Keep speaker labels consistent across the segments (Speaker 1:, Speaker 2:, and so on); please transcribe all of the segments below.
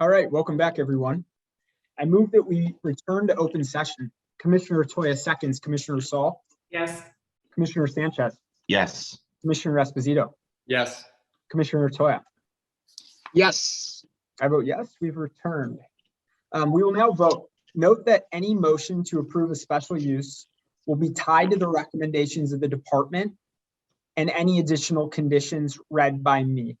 Speaker 1: All right, welcome back, everyone. I move that we return to open session. Commissioner Toya seconds, Commissioner Saul,
Speaker 2: Yes.
Speaker 1: Commissioner Sanchez,
Speaker 3: Yes.
Speaker 1: Commissioner Esposito,
Speaker 4: Yes.
Speaker 1: Commissioner Toya.
Speaker 3: Yes.
Speaker 1: I vote yes, we've returned. Um, we will now vote. Note that any motion to approve a special use will be tied to the recommendations of the department and any additional conditions read by me.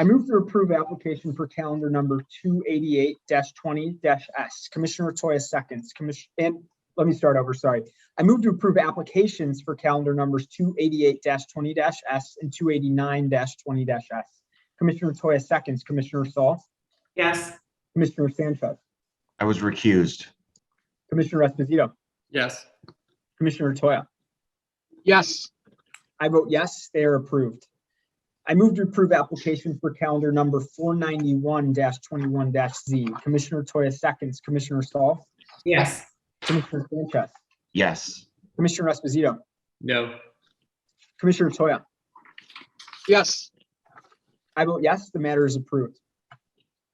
Speaker 1: I move to approve application for calendar number two eighty-eight twenty S. Commissioner Toya seconds, commission, and let me start over, sorry. I move to approve applications for calendar numbers two eighty-eight twenty S and two eighty-nine twenty S. Commissioner Toya seconds, Commissioner Saul,
Speaker 2: Yes.
Speaker 1: Commissioner Sanchez,
Speaker 3: I was recused.
Speaker 1: Commissioner Esposito,
Speaker 4: Yes.
Speaker 1: Commissioner Toya.
Speaker 3: Yes.
Speaker 1: I vote yes, they are approved. I move to approve application for calendar number four ninety-one twenty-one Z. Commissioner Toya seconds, Commissioner Saul,
Speaker 2: Yes.
Speaker 1: Commissioner Sanchez,
Speaker 3: Yes.
Speaker 1: Commissioner Esposito,
Speaker 4: No.
Speaker 1: Commissioner Toya.
Speaker 3: Yes.
Speaker 1: I vote yes, the matter is approved.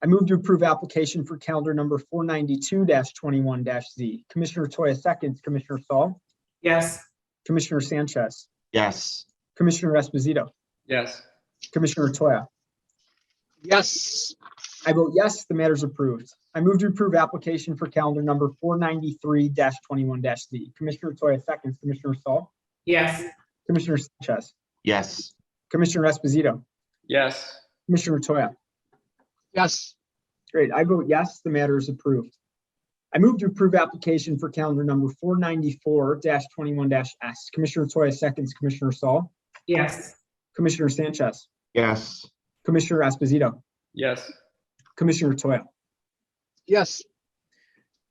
Speaker 1: I move to approve application for calendar number four ninety-two twenty-one Z. Commissioner Toya seconds, Commissioner Saul,
Speaker 2: Yes.
Speaker 1: Commissioner Sanchez,
Speaker 3: Yes.
Speaker 1: Commissioner Esposito,
Speaker 4: Yes.
Speaker 1: Commissioner Toya.
Speaker 3: Yes.
Speaker 1: I vote yes, the matter is approved. I move to approve application for calendar number four ninety-three twenty-one Z. Commissioner Toya seconds, Commissioner Saul,
Speaker 2: Yes.
Speaker 1: Commissioner Sanchez,
Speaker 3: Yes.
Speaker 1: Commissioner Esposito,
Speaker 4: Yes.
Speaker 1: Commissioner Toya.
Speaker 3: Yes.
Speaker 1: Great, I vote yes, the matter is approved. I move to approve application for calendar number four ninety-four twenty-one S. Commissioner Toya seconds, Commissioner Saul,
Speaker 2: Yes.
Speaker 1: Commissioner Sanchez,
Speaker 3: Yes.
Speaker 1: Commissioner Esposito,
Speaker 4: Yes.
Speaker 1: Commissioner Toya.
Speaker 3: Yes.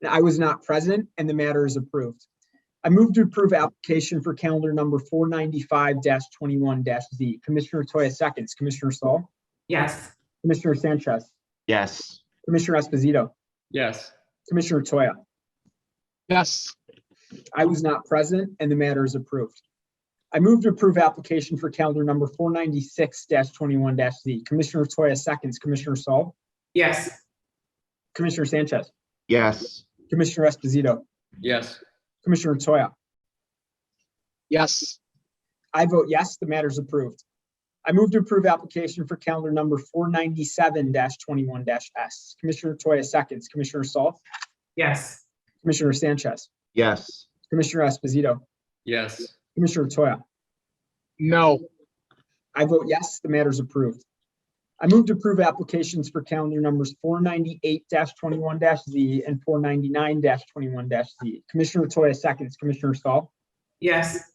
Speaker 1: I was not present and the matter is approved. I move to approve application for calendar number four ninety-five twenty-one Z. Commissioner Toya seconds, Commissioner Saul,
Speaker 2: Yes.
Speaker 1: Commissioner Sanchez,
Speaker 3: Yes.
Speaker 1: Commissioner Esposito,
Speaker 4: Yes.
Speaker 1: Commissioner Toya.
Speaker 3: Yes.
Speaker 1: I was not present and the matter is approved. I move to approve application for calendar number four ninety-six twenty-one Z. Commissioner Toya seconds, Commissioner Saul,
Speaker 2: Yes.
Speaker 1: Commissioner Sanchez,
Speaker 3: Yes.
Speaker 1: Commissioner Esposito,
Speaker 4: Yes.
Speaker 1: Commissioner Toya.
Speaker 3: Yes.
Speaker 1: I vote yes, the matter is approved. I move to approve application for calendar number four ninety-seven twenty-one S. Commissioner Toya seconds, Commissioner Saul,
Speaker 2: Yes.
Speaker 1: Commissioner Sanchez,
Speaker 3: Yes.
Speaker 1: Commissioner Esposito,
Speaker 4: Yes.
Speaker 1: Commissioner Toya.
Speaker 3: No.
Speaker 1: I vote yes, the matter is approved. I move to approve applications for calendar numbers four ninety-eight twenty-one Z and four ninety-nine twenty-one Z. Commissioner Toya seconds, Commissioner Saul,
Speaker 2: Yes.